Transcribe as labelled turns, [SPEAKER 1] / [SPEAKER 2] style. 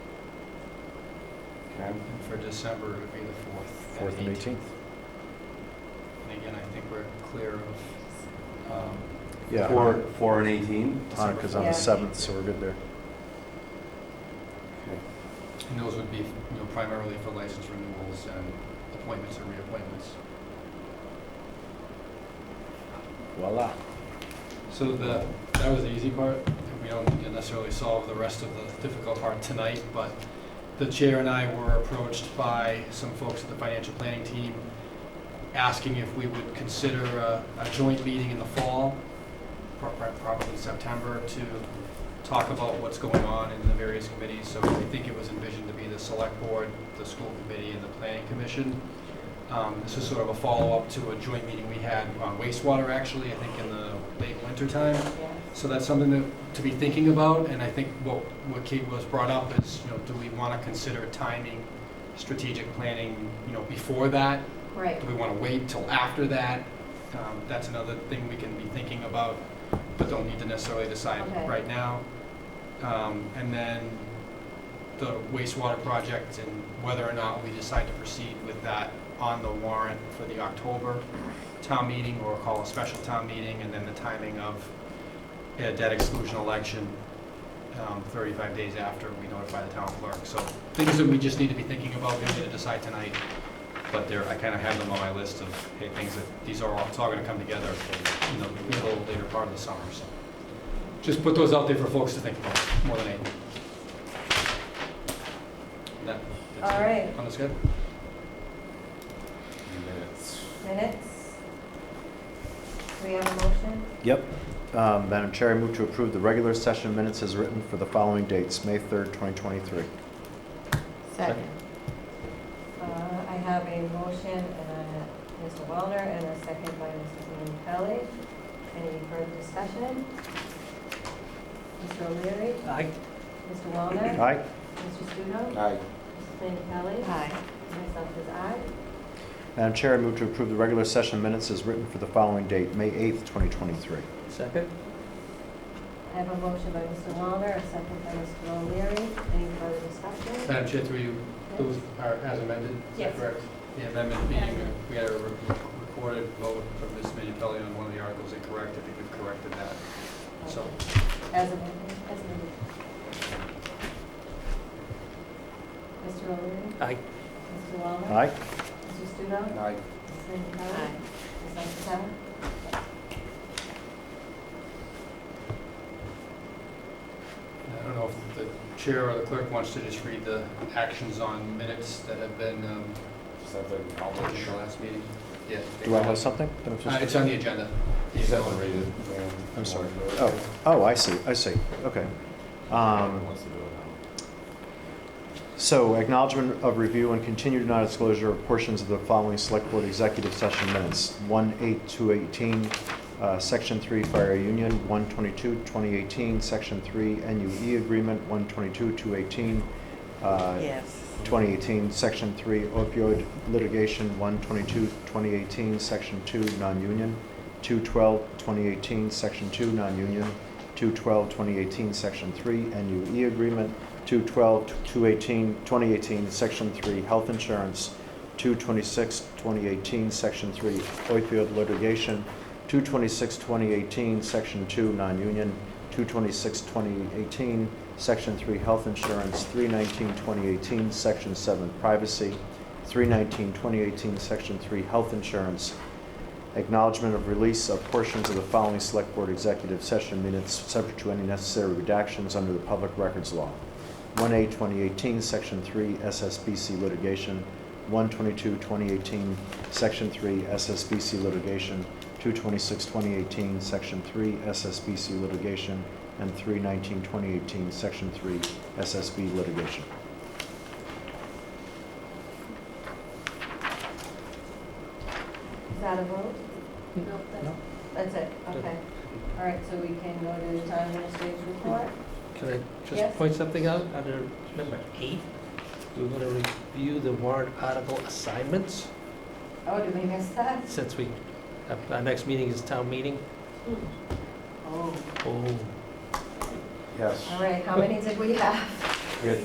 [SPEAKER 1] Okay.
[SPEAKER 2] And for December, it would be the fourth.
[SPEAKER 1] Fourth and 18th.
[SPEAKER 2] And again, I think we're clear of, um,
[SPEAKER 1] Yeah.
[SPEAKER 3] Four, four and eighteen?
[SPEAKER 1] Hanukkah's on the
[SPEAKER 4] Yeah.
[SPEAKER 1] 7th, so we're good there.
[SPEAKER 3] Okay.
[SPEAKER 2] and those would be, you know, primarily for license renewals and appointments and reappointments.
[SPEAKER 1] Voila.
[SPEAKER 2] So the, that was the easy part. We don't need to necessarily solve the rest of the difficult part tonight, but the chair and I were approached by some folks at the financial planning team asking if we would consider a, a joint meeting in the fall, prob- probably September, to talk about what's going on in the various committees. So I think it was envisioned to be the select board, the school committee, and the planning commission. Um, This is sort of a follow-up to a joint meeting we had on wastewater, actually, I think in the late winter time. So that's something that, to be thinking about, and I think what, what Kate was brought up is, you know, do we want to consider timing, strategic planning, you know, before that?
[SPEAKER 4] Right.
[SPEAKER 2] Do we want to wait till after that? Um, That's another thing we can be thinking about, but don't need to necessarily decide
[SPEAKER 4] Okay.
[SPEAKER 2] right now. Um, And then the wastewater project and whether or not we decide to proceed with that on the warrant for the October town meeting or call a special town meeting, and then the timing of a debt exclusion election um, 35 days after we notify the town clerk. So things that we just need to be thinking about, we don't need to decide tonight, but there, I kind of have them on my list of, hey, things that, these are all, it's all going to come together in the middle, later part of the summer, so. Just put those out there for folks to think about, more than anything. That- that's it.
[SPEAKER 4] All right.
[SPEAKER 2] On the schedule?
[SPEAKER 3] Minutes.
[SPEAKER 4] Minutes? Do we have a motion?
[SPEAKER 1] Yep. Um, Madam Chair, I move to approve the regular session minutes as written for the following dates, May 3rd, 2023.
[SPEAKER 2] Second.
[SPEAKER 4] Uh, I have a motion, uh, Mr. Wallner, and a second by Mrs. Ian Kelly. Any further discussion? Mr. O'Leary?
[SPEAKER 2] Aye.
[SPEAKER 4] Mr. Wallner?
[SPEAKER 1] Aye?
[SPEAKER 4] Mr. Studo?
[SPEAKER 3] Aye.
[SPEAKER 4] Mrs. Ian Kelly? Aye. Myself is aye.
[SPEAKER 1] Madam Chair, I move to approve the regular session minutes as written for the following date, May 8th, 2023.
[SPEAKER 2] Second?
[SPEAKER 4] I have a motion by Mr. Wallner, a second by Mr. O'Leary. Any further discussion?
[SPEAKER 2] Madam Chair, through you, those are as amended? is that
[SPEAKER 4] Yes.
[SPEAKER 2] correct? The amendment being, we had a re- recorded vote from Ms. Minipelli on one of the articles incorrect, I think we've corrected that. So,
[SPEAKER 4] As amended, as amended. Mr. O'Leary?
[SPEAKER 2] Aye.
[SPEAKER 4] Mr. Wallner?
[SPEAKER 1] Aye?
[SPEAKER 4] Mr. Studo?
[SPEAKER 3] Aye.
[SPEAKER 4] Mrs. Lincoln Kelly? Ms. Underwood?
[SPEAKER 2] I don't know if the chair or the clerk wants to just read the actions on minutes that have been um,
[SPEAKER 3] Sounds like I'll
[SPEAKER 2] taken at the last meeting. Yeah.
[SPEAKER 1] Do I have something?
[SPEAKER 2] Uh, It's on the agenda.
[SPEAKER 3] You said to read it.
[SPEAKER 1] I'm sorry. Oh, oh, I see, I see. Okay. Um,
[SPEAKER 3] Wants to do it
[SPEAKER 1] So acknowledgement of review and continued non-disclosure of portions of the following Select Board Executive Session Minutes. 18218, uh, Section 3 Fire Union, 122-2018, Section 3 NUE E Agreement, 122-218, uh,
[SPEAKER 5] Yes.
[SPEAKER 1] 2018, Section 3 opioid litigation, 122-2018, Section 2 non-union, 212-2018, Section 2 non-union, 212-2018, Section 3 NUE E agreement, 212-2018, Section 3 health insurance, 226-2018, Section 3 opioid litigation, 226-2018, Section 2 non-union, 226-2018, Section 3 Health Insurance, 319-2018, Section 7 Privacy, 319-2018, Section 3 Health Insurance, acknowledgement of release of portions of the following Select Board Executive Session minutes subject to any necessary redactions under the Public Records Law. 1A 2018, Section 3 SSBC litigation, 122 2018, Section 3 SSBC litigation, 226 2018, Section 3 SSBC litigation, and 319 2018, Section 3 SSB litigation.
[SPEAKER 4] Is that a vote?
[SPEAKER 5] No,
[SPEAKER 1] No.
[SPEAKER 4] That's it, okay. All right, so we can go to the town administrator's report?
[SPEAKER 5] Can I
[SPEAKER 4] Yes.
[SPEAKER 5] just point something out? Under number eight, we want to review the warrant article assignments,
[SPEAKER 4] Oh, did we miss that?
[SPEAKER 5] since we, our- our next meeting is town meeting.
[SPEAKER 4] Oh,
[SPEAKER 5] Oh,
[SPEAKER 3] Yes.
[SPEAKER 2] Oh.
[SPEAKER 4] all right, how many did we have?